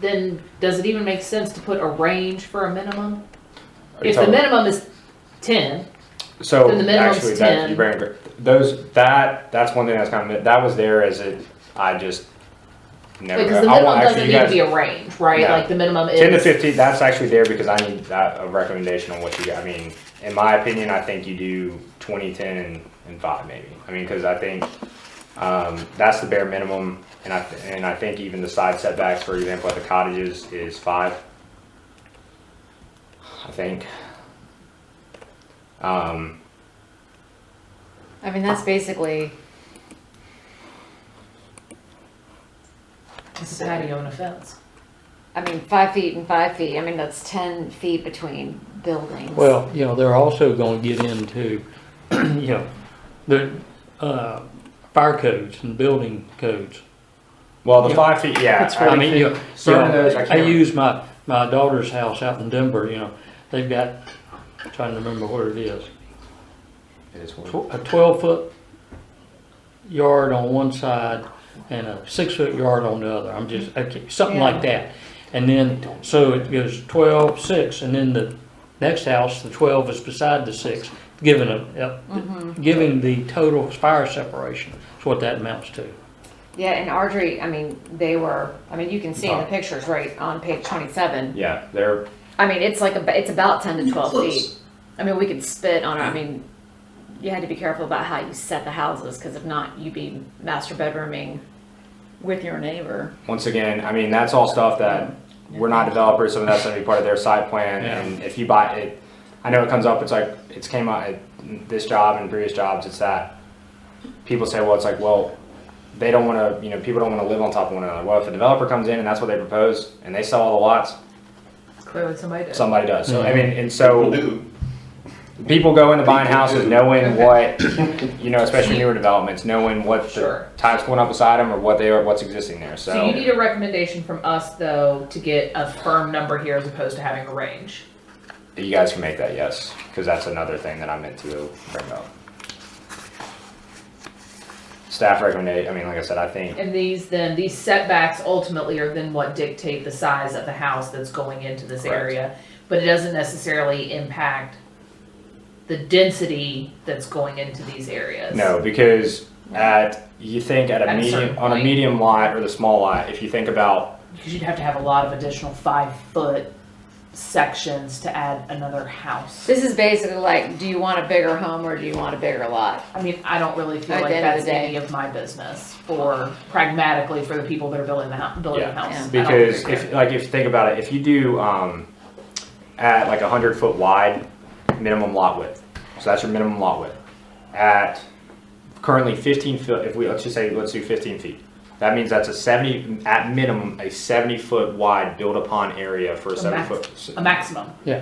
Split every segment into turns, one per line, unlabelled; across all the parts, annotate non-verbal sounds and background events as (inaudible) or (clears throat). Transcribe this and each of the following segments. then does it even make sense to put a range for a minimum?
Are you
If the
talking-
minimum is ten,
So
Then the minimum's
actually, that,
10.
you bring, those, that, that's one thing that's kind of, that was there as it, I just never.
because the
I
minimum
want- actually,
doesn't
you
need to
guys-
be a range, right?
No.
Like the minimum is.
Ten to fifteen, that's actually there because I need that, a recommendation on what you, got. I mean, in my opinion, I think you do twenty, ten, and, and five maybe. I mean, cause I think, um, that's the bare minimum, and I, th- and I think even the side setbacks, for example, at the cottages is
(sighs)
five. I think. Um,
I mean, that's basically,
It's a patio and a fence.
I mean, five feet and five feet, I mean, that's ten feet between buildings.
Well, you know, they're also gonna get into, (clears throat) you know, the, uh, fire codes and building codes.
Well, the
Yeah.
five feet, yeah.
I mean, you know,
Certain
you
of
know,
those I
I
can't.
use my, my daughter's house out in Denver, you know, they've got, I'm trying to remember what it is.
It is horrible.
tw- a twelve foot yard on one side and a six foot yard on the other. I'm just, okay, something like that. And then, so it goes twelve, six, and then the next house, the twelve is beside the six, giving a, yep,
Mm-hmm.
giving the total fire separation, is what that amounts to.
Yeah, and Ardrey, I mean, they were, I mean, you can see in the pictures right on page twenty-seven.
Yeah, they're,
I mean, it's like, a, it's about ten to twelve feet. I mean, we could spit on it, I mean, you had to be careful about how you set the houses, cause if not, you'd be master bedrooming with your neighbor.
once again, I mean, that's all stuff that we're not developers, so that's gonna be part of their site plan.
Yeah.
And if you buy it, I know it comes up, it's like, it's came out, at this job and previous jobs, it's that. People say, well, it's like, well, they don't wanna, you know, people don't wanna live on top of one another. Well, if a developer comes in and that's what they propose, and they sell all the lots,
Clearly somebody did.
somebody does. So, I
Mhm.
mean, and so. people go into buying houses knowing what, you know, especially newer developments, knowing what the
Sure.
types going up beside them or what they are, what's existing there,
So you
so.
need a recommendation from us though to get a firm number here as opposed to having a range.
You guys can make that, yes, because that's another thing that I meant to bring up. Staff recommendation, I mean, like I said, I think,
And these then, these setbacks ultimately are then what dictate the size of the house that's going into this
Correct.
area. But it doesn't necessarily impact the density that's going into these areas.
no, because at, you think at
At
a
a
medium,
certain
on a
point.
medium lot or the small lot, if you think about,
Because you'd have to have a lot of additional five foot sections to add another house.
This is basically like, do you want a bigger home or do you want a bigger lot?
I mean, I don't really feel
At the
like
end of
that's
the day.
any of my business for pragmatically for the people that are building the house, building the
Yeah.
house. I don't
because
really care.
if, uh, like, if you think about it, if you do, um, at like a hundred foot wide, minimum lot width. So that's your minimum lot width. At currently fifteen foot, if we, let's just say, let's do fifteen feet. That means that's a seventy, at minimum, a seventy foot wide built upon area for a
So
seven
max-
foot.
A maximum,
Yeah,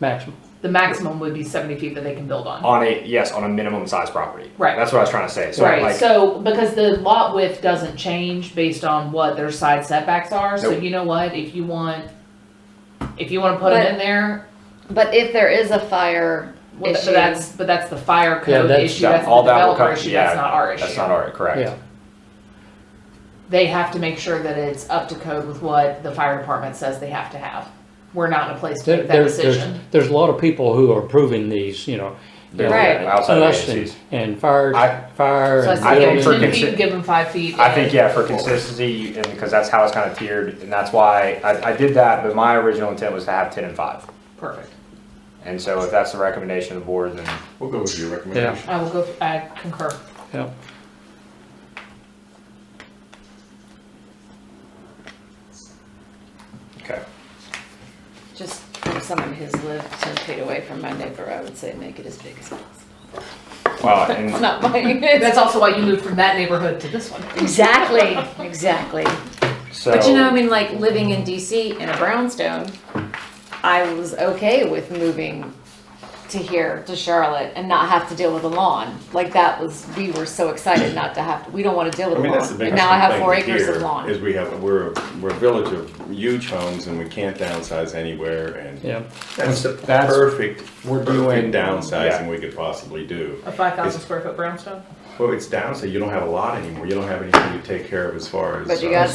maximum.
the maximum would be seventy feet that they can build on.
On a, yes, on a minimum size property.
Right.
That's what I was trying to say. So
Right,
like,
so, because the lot width doesn't change based on what their side setbacks are, so
Nope.
you know what, if you want, if you wanna put them
But-
in there,
But if there is a fire
well, th-
issue.
but that's, but that's the fire code
that's-
issue,
that-
that's the
all that will
developer
come,
issue,
yeah,
that's not our issue.
that's not our,
Yeah,
correct.
They have to make sure that it's up to code with what the fire department says they have to have. We're not in a place to
there,
make that
there's, there's,
decision.
there's a lot of people who are approving these, you know.
They're
Right.
outside
Us and,
agencies.
and fire,
I-
fire.
So I
and
say,
think
give
for
them ten
building.
feet,
consi-
give them five feet.
I think yeah, for consistency, and because that's how it's kind of tiered, and that's why I, I did that. But my original intent was to have ten and five,
Perfect.
and so if that's the recommendation of the board, then
We'll go with your
Yeah.
recommendation.
I will go, I
(laughs)
concur.
Yeah.
okay.
Just from someone who's lived ten feet away from my neighbor, I would say make it as big as possible.
Well, and
It's not mine.
That's also why you moved from that neighborhood to this one.
(laughs) exactly, exactly.
so
But you know, I mean, like living in DC in a brownstone, I was okay with moving to here to Charlotte and not have to deal with a lawn. Like that was, we were so excited not to have. to We don't want to deal with
I mean,
a
that's the
lawn.
biggest
And now I have four
complaint
acres
here
of lawn.
Is we have, we're, we're a village of huge homes and we can't downsize anywhere and.
Yeah.
That's the
That's-
perfect,
we're doing-
perfect downsizing we could possibly do.
A five thousand
It's-
square foot brownstone?
Well, it's downside, you don't have a lot anymore, you don't have anything to take care of as far as.
But you
uh,
got